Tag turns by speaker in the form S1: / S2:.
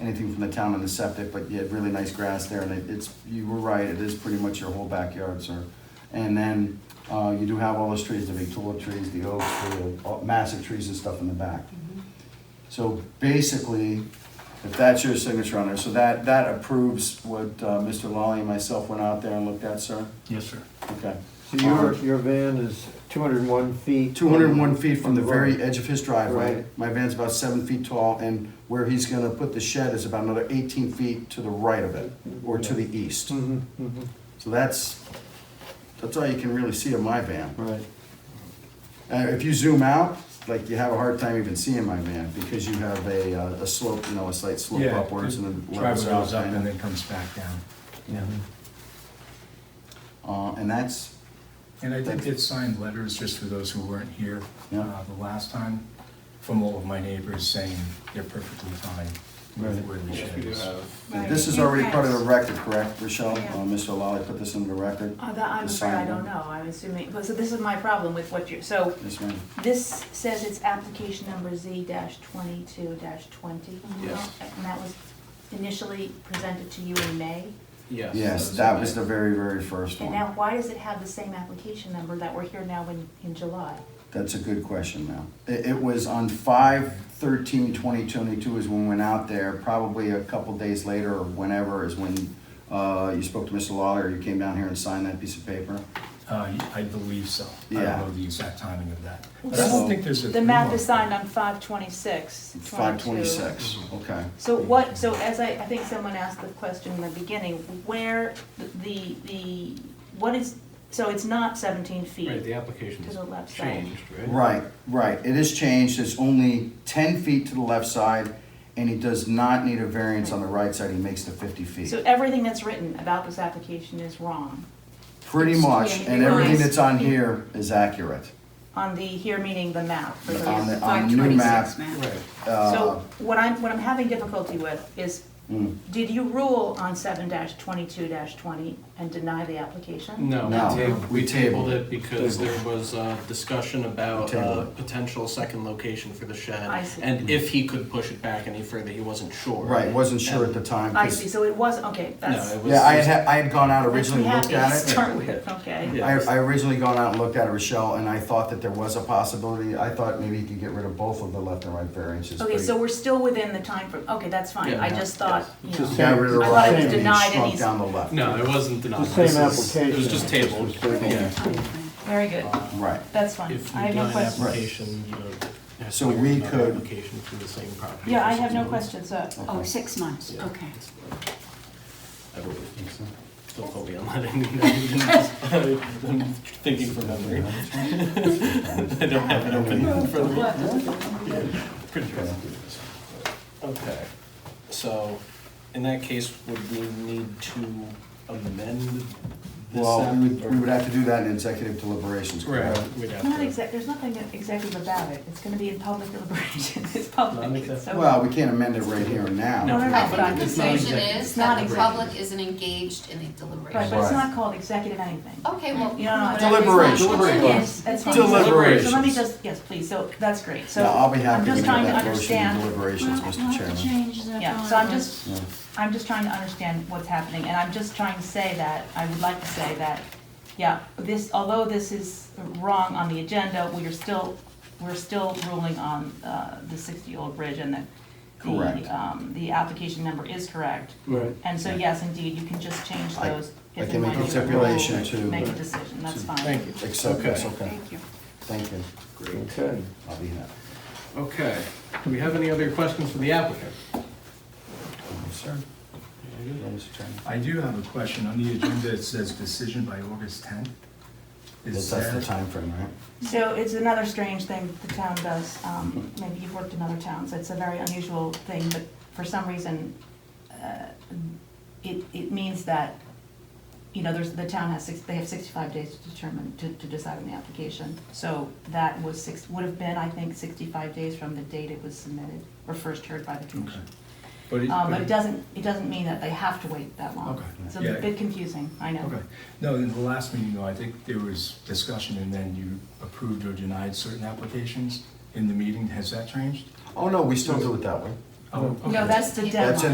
S1: anything from the town on the septic, but you had really nice grass there, and it- it's, you were right, it is pretty much your whole backyard, sir. And then, uh, you do have all those trees, the big tulip trees, the oaks, the uh, massive trees and stuff in the back. So basically, if that's your signature on there, so that, that approves what, uh, Mr. Lally and myself went out there and looked at, sir?
S2: Yes, sir.
S1: Okay.
S3: So your, your van is two hundred and one feet?
S1: Um, Two hundred and one feet from the
S3: from the road.
S1: very edge of his driveway.
S3: Right.
S1: My van's about seven feet tall, and where he's gonna put the shed is about another eighteen feet to the right of it, or to the east.
S3: Mhm,
S2: Mm-hmm,
S3: mhm.
S1: So that's, that's all you can really see of my van.
S3: Right,
S1: Uh, if you zoom out, like you have a hard time even seeing my van, because you have a, uh, a slope, you know, a slight slope
S2: Yeah,
S1: upwards and then levels
S2: Driveway
S1: out.
S2: goes up
S1: kinda.
S2: and then comes back down.
S3: yeah.
S1: Uh, and that's,
S2: And I did get signed letters, just for those who weren't here,
S1: Yeah.
S2: uh, the last time, from all of my neighbors saying they're perfectly fine with
S1: Right.
S2: where the
S4: Yes, we
S2: shed
S4: do
S2: is.
S4: have.
S5: Right,
S1: this is
S5: you
S1: already
S5: can.
S1: part of the record, correct, Rochelle?
S5: Yeah.
S1: Uh, Mr. Lally put this into the record?
S5: Uh, that, I'm
S1: The
S5: afraid I
S1: sign
S5: don't
S1: one.
S5: know, I'm assuming, but so this is my problem with what you're, so
S1: Yes, ma'am.
S5: this says it's application number Z twenty-two twenty.
S1: Mm-hmm.
S4: Yes.
S5: And that was initially presented to you in May,
S4: Yes.
S1: Yes,
S4: that's
S1: that
S4: okay.
S1: was the very, very first
S5: and
S1: one.
S5: now why does it have the same application number that we're here now in, in July?
S1: That's a good question, now. It, it was on five thirteen twenty twenty-two is when we went out there, probably a couple days later or whenever is when, uh, you spoke to Mr. Lawler, you came down here and signed that piece of paper.
S2: Uh, I believe so. I
S1: Yeah.
S2: don't know the exact timing of that. But I don't think there's a.
S5: The map is signed on five twenty-six, twenty-two.
S1: Five twenty-six,
S4: Mm-hmm.
S1: okay.
S5: So what, so as I, I think someone asked the question in the beginning, where the, the, what is, so it's not seventeen feet?
S4: Right, the application
S5: To the left side.
S4: changed, right?
S1: Right, right. It is changed. It's only ten feet to the left side, and he does not need a variance on the right side. He makes the fifty feet.
S5: So everything that's written about this application is wrong
S1: Pretty
S5: it's-
S1: much,
S5: yeah,
S1: and
S5: it
S1: everything
S5: lies.
S1: that's on here is accurate.
S5: on the here meaning the map. for the-
S1: On the, on the new map.
S6: 526 map.
S4: Right.
S1: uh,
S5: So what I'm, what I'm having difficulty with is,
S1: mm,
S5: did you rule on seven twenty-two twenty and deny the application?
S4: No,
S1: No,
S4: we tabled,
S1: we
S4: we
S1: tabled.
S4: tabled it because there was uh discussion about
S1: We tabled
S4: a
S1: it.
S4: potential second location for the shed.
S5: I see.
S4: And if he could push it back any further, he wasn't sure.
S1: Right, wasn't sure at the time.
S5: I
S1: 'cause-
S5: see, so it was, okay, that's.
S4: No, it was.
S1: Yeah, I had, had- I had gone out originally,
S5: that's
S1: looked at
S5: happy to
S1: it.
S5: Start with, okay.
S1: I, I originally gone out and looked at it, Rochelle, and I thought that there was a possibility. I thought maybe you could get rid of both of the left and right variances.
S5: Okay,
S1: but
S5: so we're still within the time frame. okay, that's fine,
S4: Yeah,
S5: I
S4: yeah,
S5: just thought, you
S3: It's the
S1: he
S5: know.
S1: Got rid of the
S5: I thought it
S1: right
S5: was
S1: and he
S5: denied and
S1: shrunk
S5: he's-
S1: down the left.
S4: No, it wasn't denied.
S3: The same
S4: This is-
S3: application.
S4: It was just tabled,
S3: It's just-
S4: yeah.
S5: Very good,
S1: Right.
S5: that's fine,
S4: If
S5: I
S4: you
S5: have
S4: deny
S5: no
S4: an
S5: questions.
S4: application, you don't. have
S1: So
S4: to
S1: we
S4: another
S1: could-
S4: Application for the same property.
S5: Yeah,
S4: for
S5: I
S4: six
S5: have no
S4: months.
S5: questions, uh,
S6: Oh, six months,
S4: Yeah.
S6: okay.
S4: I believe. Don't quote me on that. I'm thinking from memory. I don't have it open in front of me. Pretty sure. Okay, so in that case, would we need to amend this?
S1: Well,
S4: app,
S1: we would,
S4: or-
S1: we would have to do that in executive deliberations, correct?
S4: Right, we'd have to.
S5: Not exact, there's nothing executive about it, it's gonna be in public deliberation, it's public, it's so.
S1: Well, we can't amend it right here and now.
S5: No, no, no, but I'm
S6: The
S5: just saying,
S6: conclusion is
S5: It's not
S6: that the
S5: exactly.
S6: public isn't engaged in the
S5: right,
S6: deliberation.
S5: but it's
S1: Right.
S5: not called executive anything.
S6: Okay, well.
S5: You don't know.
S6: whatever it's not.
S1: Deliberation.
S5: Yes, that's fine.
S1: Deliberation.
S5: So let me just, yes, please, so, that's great, so.
S1: No, I'll be happy
S5: I'm
S1: to
S5: just
S1: make
S5: trying to
S1: that motion in
S5: understand,
S1: deliberations, Mr. Chairman.
S5: yeah, so I'm just,
S1: Yeah.
S5: I'm just trying to understand what's happening, and I'm just trying to say that, I would like to say that, yeah, this, although this is wrong on the agenda, we are still, we're still ruling on uh, the 60-year-old bridge and that
S1: Correct.
S5: the, um, the application number is correct.
S3: Right.
S5: And so, yes, indeed, you can just change
S1: I-
S5: those.
S1: I
S5: if
S1: can
S5: and
S1: make
S5: when
S1: a
S5: you
S1: stipulation to-
S5: Make a decision, that's fine.
S4: Thank you.
S1: Accept, it's okay.
S6: Thank you.
S1: Thank you.
S4: Great.
S3: Okay.
S1: I'll be happy.
S4: Okay, do we have any other questions for the applicant?
S1: Sir? Mr. Chairman.
S2: I do have a question. On the agenda, it says decision by August 10th.
S1: That's
S2: Is
S1: that's the
S2: that,
S1: timeframe, right?
S5: So it's another strange thing the town does, um, maybe you've worked in other towns, it's a very unusual thing, but for some reason, uh, it, it means that, you know, there's, the town has six, they have sixty-five days to determine, to, to decide on the application. So that was six, would have been, I think, sixty-five days from the date it was submitted, or first heard by the commission.
S2: but it,
S5: Um,
S2: but
S5: but
S2: it-
S5: it doesn't, it doesn't mean that they have to wait that long.
S2: Okay.
S5: So it's
S2: Yeah.
S5: a bit confusing, I know.
S2: Okay. No, in the last meeting, though, I think there was discussion, and then you approved or denied certain applications in the meeting. Has that changed?
S1: Oh, no, we still do it that way.
S2: Oh, okay.
S5: No, that's the deadline.
S1: That's in